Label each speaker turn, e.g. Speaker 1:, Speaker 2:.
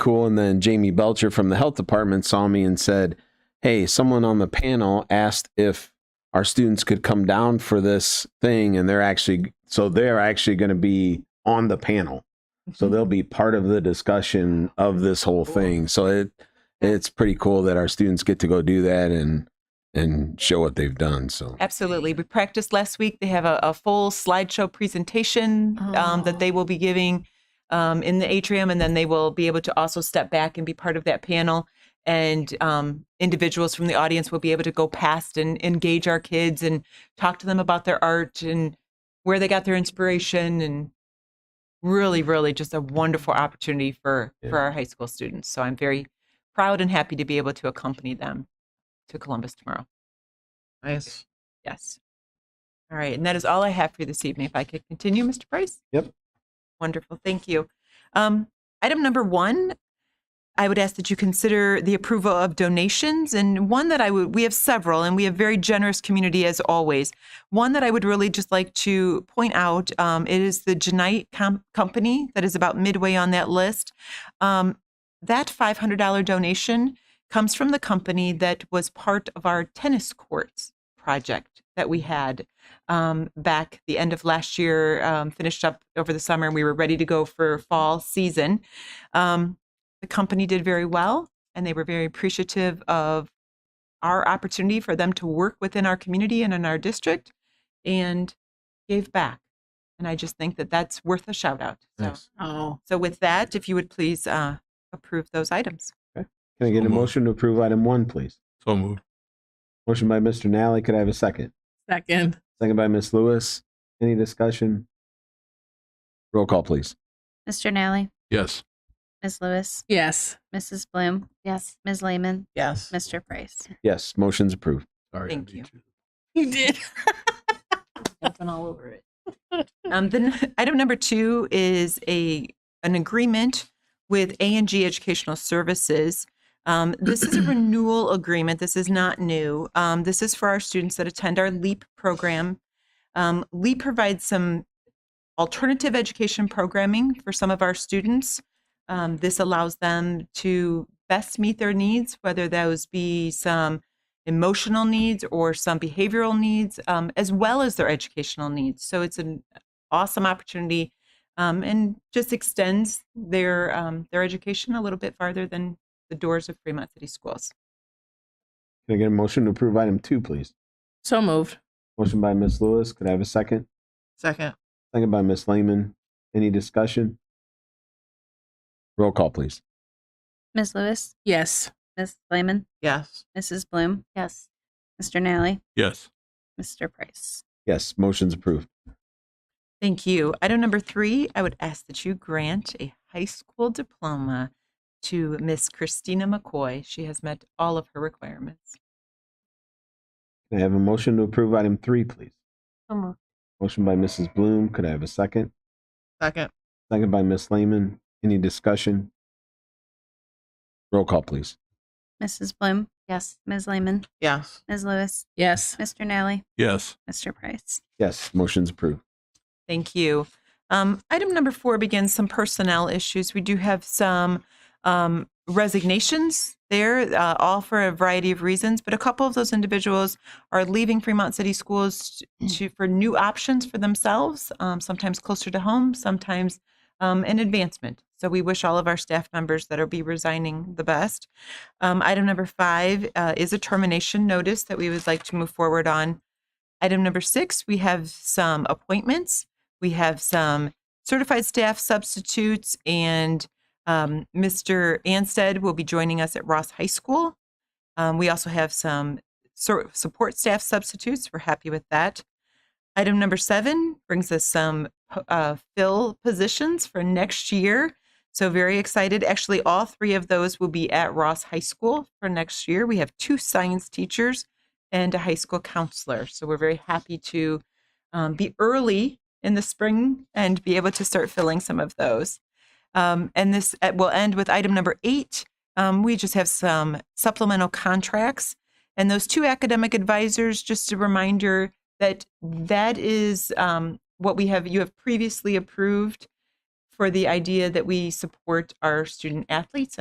Speaker 1: cool. And then Jamie Belcher from the health department saw me and said, Hey, someone on the panel asked if our students could come down for this thing. And they're actually, so they're actually going to be on the panel. So
Speaker 2: Mm-hmm.
Speaker 1: they'll be part of the discussion of this whole thing. So it, it's pretty cool that our students get to go do that and, and show what they've done. So
Speaker 3: Absolutely. We practiced last week. They have a, a full slideshow presentation um,
Speaker 4: Oh.
Speaker 3: that they will be giving um, in the atrium, and then they will be able to also step back and be part of that panel. And um, individuals from the audience will be able to go past and engage our kids and talk to them about their art and where they got their inspiration and really really just a wonderful opportunity for
Speaker 1: Yeah.
Speaker 3: for our high school students so i'm very proud and happy to be able to accompany them to columbus tomorrow
Speaker 2: Nice.
Speaker 3: Yes. All right, and that is all I have for you this evening. If I could continue, Mr. Price?
Speaker 1: Yep.
Speaker 3: Wonderful, thank you. Um, item number one, I would ask that you consider the approval of donations, and one that I would, we have several, and we have very generous community as always. One that I would really just like to point out, um, it is the Genite Com- Company that is about midway on that list. Um, that $500 donation comes from the company that was part of our tennis courts project that we had um, back the end of last year, um, finished up over the summer, and we were ready to go for fall season. Um, the company did very well, and they were very appreciative of our opportunity for them to work within our community and in our district and gave back. And I just think that that's worth a shout out. So,
Speaker 1: Nice.
Speaker 2: Oh,
Speaker 3: so with that, if you would please uh, approve those items.
Speaker 1: can I get a
Speaker 5: Almost.
Speaker 1: motion to approve item one, please?
Speaker 5: So moved.
Speaker 1: Motion by Mr. Nally. Could I have a second?
Speaker 2: second.
Speaker 1: Second by Ms. Lewis. Any discussion? Roll call, please.
Speaker 4: Mr. Nally,
Speaker 5: Yes.
Speaker 4: Ms. Lewis,
Speaker 2: Yes.
Speaker 4: Mrs. Bloom. Yes. Ms. Lehman,
Speaker 2: Yes.
Speaker 4: Mr. Price.
Speaker 1: Yes, motion's approved.
Speaker 5: Sorry. I
Speaker 3: Thank
Speaker 5: beat
Speaker 3: you.
Speaker 2: You did.
Speaker 4: all over it.
Speaker 3: Um, then item number two is a, an agreement with A and G Educational Services. Um, this is a renewal agreement. This is not new. Um, this is for our students that attend our LEAP program. Um, LEAP provides some alternative education programming for some of our students. Um, this allows them to best meet their needs, whether those be some emotional needs or some behavioral needs, um, as well as their educational needs. So it's an awesome opportunity um, and just extends their um, their education a little bit farther than the doors of Fremont City Schools.
Speaker 1: Can I get a motion to approve item two, please?
Speaker 2: So moved.
Speaker 1: Motion by Ms. Lewis. Could I have a second?
Speaker 2: Second.
Speaker 1: Second by Ms. Lehman. Any discussion? Roll call, please.
Speaker 4: Ms. Lewis,
Speaker 2: Yes.
Speaker 4: Ms. Lehman,
Speaker 2: Yes.
Speaker 4: Mrs. Bloom. Yes. Mr. Nally,
Speaker 5: Yes.
Speaker 4: Mr. Price.
Speaker 1: Yes, motion's approved.
Speaker 3: Thank you. Item number three, I would ask that you grant a high school diploma to Miss Christina McCoy. She has met all of her requirements.
Speaker 1: Can I have a motion to approve item three, please?
Speaker 4: So moved.
Speaker 1: Motion by Mrs. Bloom. Could I have a second?
Speaker 2: Second.
Speaker 1: Second by Ms. Lehman. Any discussion? Roll call, please.
Speaker 4: Mrs. Bloom. Yes. Ms. Lehman,
Speaker 2: Yes.
Speaker 4: Ms. Lewis,
Speaker 2: Yes.
Speaker 4: Mr. Nally,
Speaker 5: Yes.
Speaker 4: Mr. Price.
Speaker 1: Yes, motion's approved.
Speaker 3: Thank you. Um, item number four begins some personnel issues. We do have some um, resignations there, uh, all for a variety of reasons, but a couple of those individuals are leaving Fremont City Schools to, for new options for themselves, um, sometimes closer to home, sometimes um, an advancement. So we wish all of our staff members that are be resigning the best. Um, item number five uh, is a termination notice that we would like to move forward on. Item number six, we have some appointments. We have some certified staff substitutes, and um, Mr. Anstead will be joining us at Ross High School. Um, we also have some sur- support staff substitutes. We're happy with that. Item number seven brings us some uh, fill positions for next year. So, very excited. Actually, all three of those will be at Ross High School for next year. We have two science teachers and a high school counselor. So we're very happy to um, be early in the spring and be able to start filling some of those. Um, and this uh, will end with item number eight. Um, we just have some supplemental contracts. And those two academic advisors, just a reminder that that is um, what we have, you have previously approved for- for the idea that we support our student athletes and